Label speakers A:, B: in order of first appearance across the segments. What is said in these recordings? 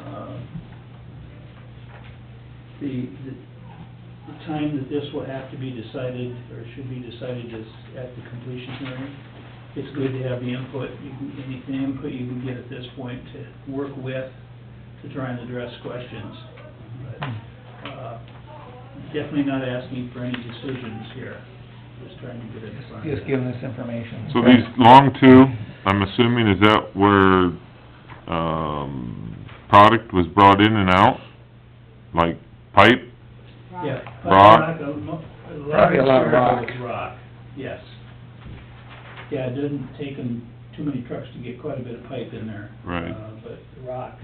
A: Uh, the, the the time that this will have to be decided, or should be decided is at the completion hearing. It's good to have the input, you can, any input you can get at this point to work with, to try and address questions. But, uh, Definitely not asking for any decisions here, just trying to get it.
B: Just give them this information.
C: So these long two, I'm assuming, is that where, um, product was brought in and out? Like pipe?
A: Yeah.
C: Rock.
A: A mo- a large
B: Probably a lot of
A: circle
B: rock.
A: is Rock, yes. Yeah, it doesn't take them too many trucks to get quite a bit of pipe in there.
C: Right.
A: uh, But rock,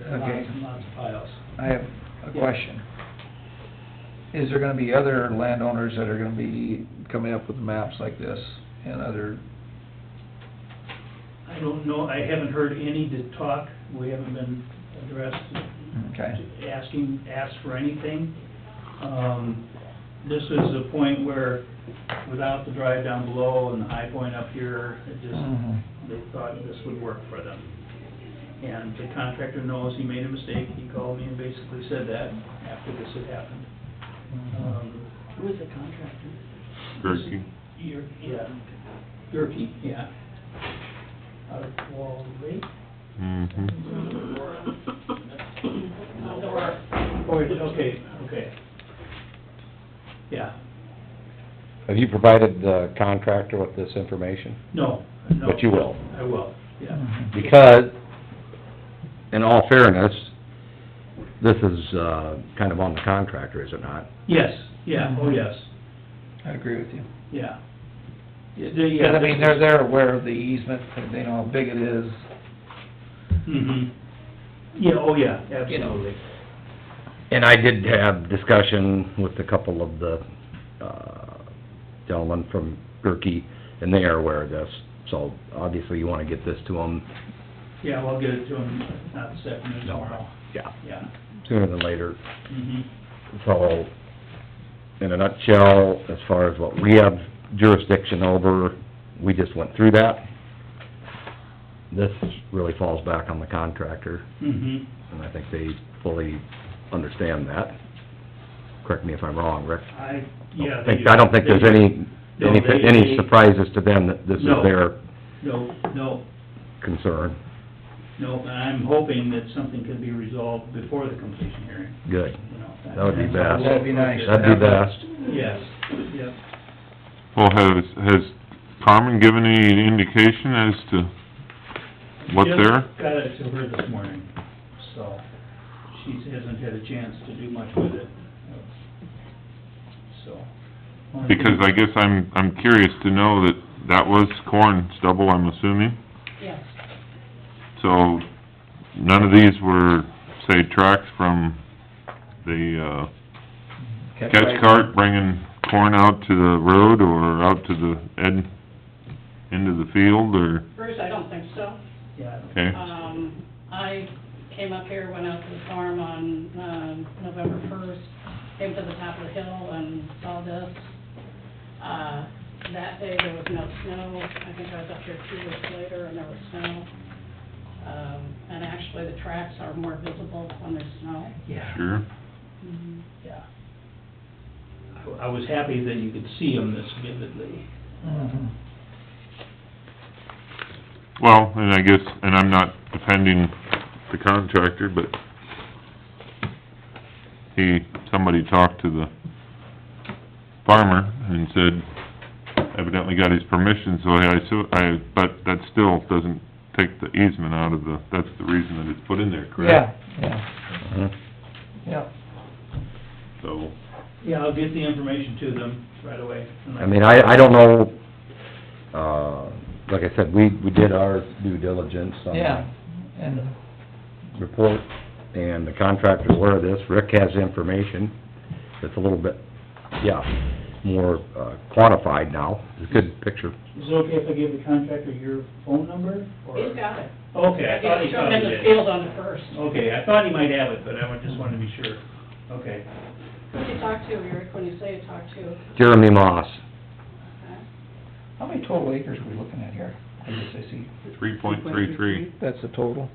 B: Okay.
A: lots and lots of piles.
B: I have a question. Is there gonna be other landowners that are gonna be coming up with maps like this and other,
A: I don't know, I haven't heard any to talk, we haven't been addressed
B: okay?
A: asking, ask for anything. Um, this is a point where, without the drive down below and the high point up here, it just,
B: Mhm.
A: they thought this would work for them. And the contractor knows he made a mistake, he called me and basically said that after this had happened. Um, Who was the contractor?
C: Gerke?
A: Yer- yeah, Yerke, yeah. Out of Wall Lake?
C: Mm-hmm.
A: Oh, it- okay, okay. Yeah,
D: Have you provided the contractor with this information?
A: no, no.
D: But you will.
A: I will, yeah.
B: Mhm.
D: Because, in all fairness, this is, uh, kind of on the contractor, is it not?
A: Yes, yeah, oh, yes,
B: I agree with you.
A: yeah. Yeah, they- yeah,
B: Because I mean,
A: this
B: they're,
A: is-
B: they're aware of the easement, and they know how big it is.
A: Mhm. Yeah, oh, yeah,
B: You know.
A: absolutely.
D: And I did have discussion with a couple of the, uh, gentlemen from Gerke, and they are aware of this, so obviously you wanna get this to them,
A: Yeah, well, I'll get it to him, not this afternoon,
D: No.
A: tomorrow,
D: yeah,
A: yeah.
D: sooner than later.
A: Mhm.
D: So, in a nutshell, as far as what we have jurisdiction over, we just went through that. This really falls back on the contractor,
A: Mhm.
D: and I think they fully understand that. Correct me if I'm wrong, Rick.
A: I, yeah.
D: I
A: they
D: think- I don't think
A: do.
D: there's any,
A: No,
D: any,
A: they-
D: any
A: they-
D: surprises to them that this is
A: No.
D: their
A: No, no,
D: concern.
A: no, and I'm hoping that something can be resolved before the completion hearing,
D: Good.
A: you know.
D: That would be
A: that's-
D: best.
B: That'd be nice.
D: That'd be best.
A: Yes, yep.
C: Well, has, has Carmen given any indication as to what
A: Jim
C: they're?
A: Got it to her this morning, so she hasn't had a chance to do much with it, so.
C: Because I guess I'm, I'm curious to know that that was corn stubble, I'm assuming?
E: Yes,
C: So, none of these were, say, tracks from the, uh, catch cart bringing corn out to the road or out to the end, end of the field or,
E: Bruce, I don't think so.
A: Yeah, I
C: okay?
E: Um, I came up here, went out to the farm on, um, November first, came to the top of the hill and saw this. Uh, that day there was no snow, I think I was up here two weeks later and there was snow. Um, and actually the tracks are more visible when there's snow.
A: don't- yeah,
C: Sure.
A: yeah. I, I was happy that you could see them this vividly.
B: Mhm.
C: Well, and I guess, and I'm not defending the contractor, but he, somebody talked to the farmer and said evidently got his permission, so I, so I, but that still doesn't take the easement out of the, that's the reason that it's put in there,
B: Yeah,
C: correct?
B: yeah,
D: Mhm.
B: yeah.
C: So,
A: Yeah, I'll get the information to them right away. and
D: I mean, I, I don't know, uh, like I said, we, we did our due diligence on
B: Yeah, and,
D: report, and the contractor's aware of this, Rick has information that's a little bit, yeah, more uh quantified now, it's a good picture.
A: Is it okay if I give the contractor your phone number, or?
E: He's got it.
A: Okay, I thought he
E: Thrown in
A: probably
E: the
A: did.
E: field on the first.
A: Okay, I thought he might have it, but I wa- just wanted to be sure. Okay.
E: Who did you talk to, Eric, when you say you talked to?
D: Jeremy Moss,
E: Okay.
B: how many total acres are we looking at here? I guess I see,
C: three point three three,
B: that's the total.